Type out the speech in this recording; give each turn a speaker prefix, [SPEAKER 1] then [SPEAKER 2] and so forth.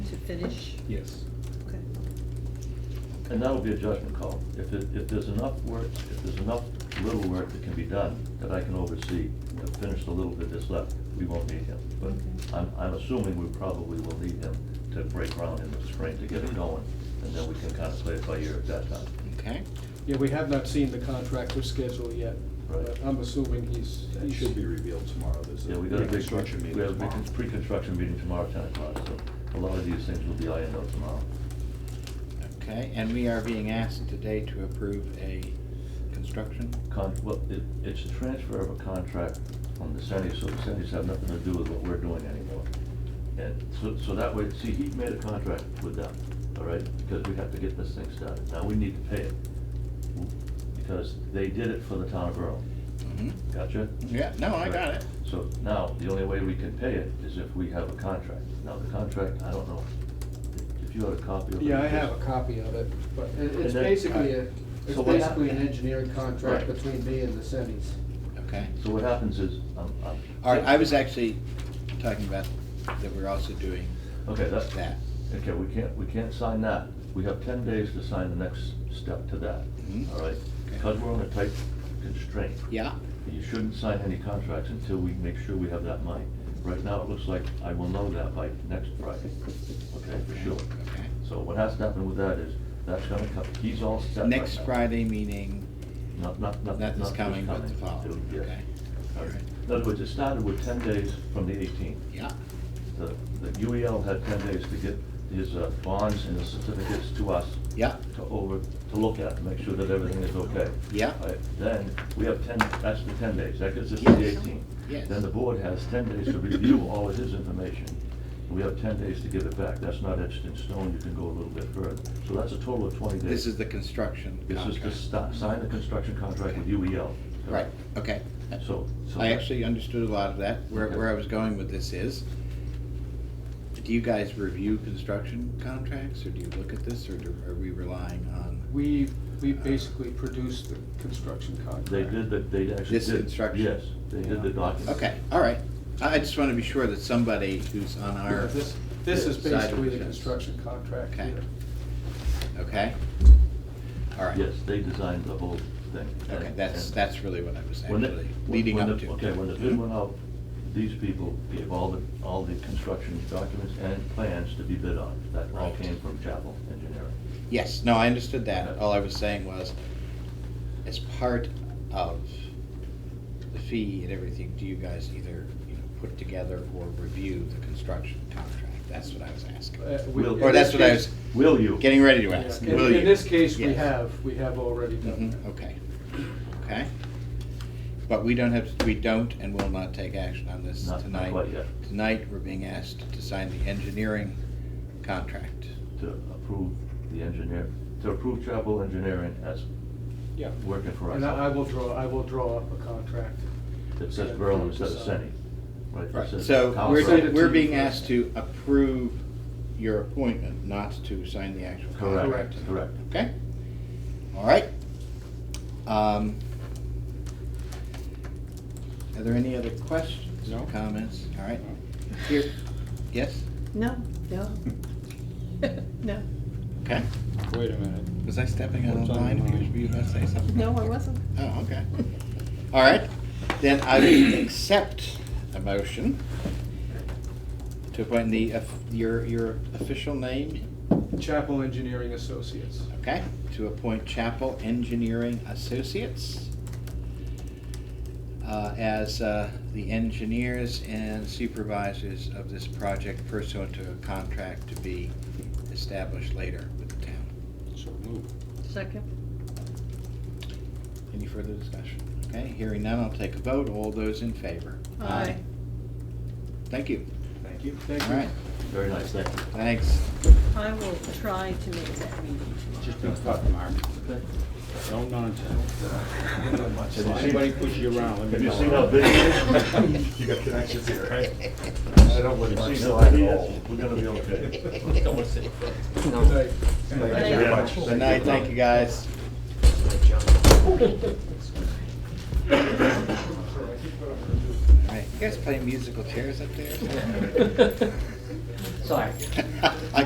[SPEAKER 1] finish?
[SPEAKER 2] Yes.
[SPEAKER 1] Okay.
[SPEAKER 3] And that'll be a judgment call. If it, if there's enough work, if there's enough little work that can be done that I can oversee, and finish the little bit that's left, we won't need him. But
[SPEAKER 1] Okay.
[SPEAKER 3] I'm, I'm assuming we probably will need him to break ground in the spring to get it going, and then we can kind of play it by ear at that time.
[SPEAKER 4] Okay,
[SPEAKER 2] Yeah, we have not seen the contractor schedule yet, but
[SPEAKER 3] Right.
[SPEAKER 2] I'm assuming he's.
[SPEAKER 5] That should be revealed tomorrow, there's
[SPEAKER 3] Yeah,
[SPEAKER 5] a
[SPEAKER 3] we got a big,
[SPEAKER 5] construction meeting
[SPEAKER 3] we have a
[SPEAKER 5] tomorrow.
[SPEAKER 3] big pre-construction meeting tomorrow at ten o'clock, so a lot of these things will be ironed out tomorrow.
[SPEAKER 4] okay, and we are being asked today to approve a construction?
[SPEAKER 3] Con, well, it, it's a transfer of a contract from the Senate, so the Senate's have nothing to do with what we're doing anymore. And so, so that way, see, he made a contract with them, all right, because we have to get this thing started. Now, we need to pay it, because they did it for the town of Berlin,
[SPEAKER 5] Mm-hmm.
[SPEAKER 4] Mhm.
[SPEAKER 3] gotcha?
[SPEAKER 4] Yeah, no, I got
[SPEAKER 3] Right.
[SPEAKER 4] it.
[SPEAKER 3] So now, the only way we can pay it is if we have a contract. Now, the contract, I don't know, if you had a copy of it.
[SPEAKER 2] Yeah, I have
[SPEAKER 3] just-
[SPEAKER 2] a copy of it, but it-
[SPEAKER 3] And
[SPEAKER 2] it's
[SPEAKER 3] then-
[SPEAKER 2] basically a, it's
[SPEAKER 3] So what-
[SPEAKER 2] basically an engineering contract
[SPEAKER 3] Right.
[SPEAKER 2] between me and the Semis.
[SPEAKER 4] Okay.
[SPEAKER 3] So what happens is, um, um.
[SPEAKER 4] All right, I was actually talking about that we're also doing
[SPEAKER 3] Okay, that's.
[SPEAKER 4] that.
[SPEAKER 3] Okay, we can't, we can't sign that. We have ten days to sign the next step to that,
[SPEAKER 4] Mhm.
[SPEAKER 3] all right? Because we're on a tight constraint,
[SPEAKER 4] Yeah,
[SPEAKER 3] you shouldn't sign any contracts until we make sure we have that money. Right now, it looks like I will know that by next Friday, okay, for sure.
[SPEAKER 4] okay.
[SPEAKER 3] So what has to happen with that is, that's gonna come, he's all set right now.
[SPEAKER 4] Next Friday meeting,
[SPEAKER 3] Not, not, not.
[SPEAKER 4] nothing's
[SPEAKER 3] not this
[SPEAKER 4] coming but the
[SPEAKER 3] It'll-
[SPEAKER 4] following,
[SPEAKER 3] yes.
[SPEAKER 4] okay? All right,
[SPEAKER 3] In other words, it started with ten days from the eighteenth.
[SPEAKER 4] yeah,
[SPEAKER 3] The, the UEL had ten days to get his uh, bonds and his certificates to us,
[SPEAKER 4] yeah,
[SPEAKER 3] to over, to look at, make sure that everything is okay.
[SPEAKER 4] Yeah.
[SPEAKER 3] All right, Then, we have ten, that's the ten days, that gets us to the
[SPEAKER 4] Yes.
[SPEAKER 3] eighteen.
[SPEAKER 4] Yes.
[SPEAKER 3] Then the board has ten days to review all of his information. We have ten days to give it back, that's not etched in stone, you can go a little bit further. So that's a total of twenty days.
[SPEAKER 4] this is the construction
[SPEAKER 3] This is to
[SPEAKER 4] contract.
[SPEAKER 3] stop, sign the construction contract with UEL.
[SPEAKER 4] Right, okay.
[SPEAKER 3] So, so.
[SPEAKER 4] I actually uh, understood a lot of that. Where,
[SPEAKER 3] Okay.
[SPEAKER 4] where I was going with this is, do you guys review construction contracts, or do you look at this, or do- are we relying on?
[SPEAKER 2] We, we basically produced the construction contract.
[SPEAKER 3] They did, the- they actually did.
[SPEAKER 4] This construction?
[SPEAKER 3] Yes, they did the document.
[SPEAKER 4] Okay, all right. I I just want to be sure that somebody who's on our,
[SPEAKER 2] This, this is
[SPEAKER 4] Side of the
[SPEAKER 2] basically the
[SPEAKER 4] fence.
[SPEAKER 2] construction contract
[SPEAKER 4] Okay.
[SPEAKER 2] here.
[SPEAKER 4] okay? All right.
[SPEAKER 3] Yes, they designed the whole thing.
[SPEAKER 4] Okay,
[SPEAKER 3] And-
[SPEAKER 4] that's,
[SPEAKER 3] and-
[SPEAKER 4] that's really what I was
[SPEAKER 3] When the-
[SPEAKER 4] actually
[SPEAKER 3] when-
[SPEAKER 4] leading
[SPEAKER 3] when
[SPEAKER 4] up
[SPEAKER 3] the-
[SPEAKER 4] to.
[SPEAKER 3] Okay, when the bid went out, these people gave all the, all the construction documents and plans to be bid on. That all
[SPEAKER 4] Right.
[SPEAKER 3] came from Chapel Engineering.
[SPEAKER 4] Yes, no, I understood that.
[SPEAKER 3] Okay.
[SPEAKER 4] All I was saying was, as part of the fee and everything, do you guys either, you know, put together or review the construction contract? That's what I was asking.
[SPEAKER 2] Uh, we-
[SPEAKER 3] Will-
[SPEAKER 2] in
[SPEAKER 4] Or that's
[SPEAKER 2] this
[SPEAKER 4] what I
[SPEAKER 2] case-
[SPEAKER 4] was
[SPEAKER 3] Will you?
[SPEAKER 4] getting ready to
[SPEAKER 2] yeah,
[SPEAKER 4] ask.
[SPEAKER 2] in-
[SPEAKER 4] Will you?
[SPEAKER 2] In this case, we
[SPEAKER 4] Yes.
[SPEAKER 2] have, we have already done
[SPEAKER 4] Mhm,
[SPEAKER 2] that.
[SPEAKER 4] Okay, okay. But we don't have, we don't and will not take action on this
[SPEAKER 3] Not- not
[SPEAKER 4] tonight.
[SPEAKER 3] quite yet.
[SPEAKER 4] Tonight, we're being asked to sign the engineering contract.
[SPEAKER 3] To approve the engineer, to approve Chapel Engineering as
[SPEAKER 2] Yeah.
[SPEAKER 3] working for
[SPEAKER 2] And I I
[SPEAKER 3] us.
[SPEAKER 2] will draw, I will draw up a contract.
[SPEAKER 3] It says Berlin instead of Senni. It
[SPEAKER 4] Right,
[SPEAKER 3] says
[SPEAKER 4] so
[SPEAKER 3] Carlsbad.
[SPEAKER 2] Send it
[SPEAKER 4] we're,
[SPEAKER 2] to
[SPEAKER 4] we're
[SPEAKER 2] you
[SPEAKER 4] being
[SPEAKER 2] first.
[SPEAKER 4] asked to approve your appointment, not to sign the actual contract.
[SPEAKER 3] Correct, correct.
[SPEAKER 4] Okay? All right. Um, Are there any other questions or comments? All right. Here, yes?
[SPEAKER 1] No, no. No,
[SPEAKER 4] Okay.
[SPEAKER 6] Wait a minute.
[SPEAKER 4] Was I stepping out of
[SPEAKER 6] What's on
[SPEAKER 4] line?
[SPEAKER 6] your
[SPEAKER 4] Because
[SPEAKER 6] mind?
[SPEAKER 4] were you about to say something?
[SPEAKER 1] no, I wasn't.
[SPEAKER 4] Oh, okay. All right, then I will accept a motion to appoint the, of- your, your official name,
[SPEAKER 2] Chapel Engineering Associates.
[SPEAKER 4] okay? To appoint Chapel Engineering Associates uh, as uh, the engineers and supervisors of this project pursuant to a contract to be established later with the town.
[SPEAKER 6] So move.
[SPEAKER 1] Second,
[SPEAKER 4] Any further discussion? Okay, hearing none, I'll take a vote. All those in favor?
[SPEAKER 1] aye.
[SPEAKER 4] Thank you.
[SPEAKER 2] Thank you.
[SPEAKER 4] All
[SPEAKER 2] Thank you.
[SPEAKER 4] right,
[SPEAKER 3] Very nice, thank you.
[SPEAKER 4] thanks.
[SPEAKER 1] I will try to make that meeting tomorrow.
[SPEAKER 6] Just don't fuck Mark. No nonsense. If anybody push you around, let me know.
[SPEAKER 3] Have you seen how big it is?
[SPEAKER 5] You got connections here, right? I don't live much.
[SPEAKER 3] Have you seen how big it is? We're gonna be okay.
[SPEAKER 5] Thank you very much.
[SPEAKER 4] Good night, thank you, guys. All right, you guys play musical chairs up there?
[SPEAKER 7] Sorry.
[SPEAKER 4] I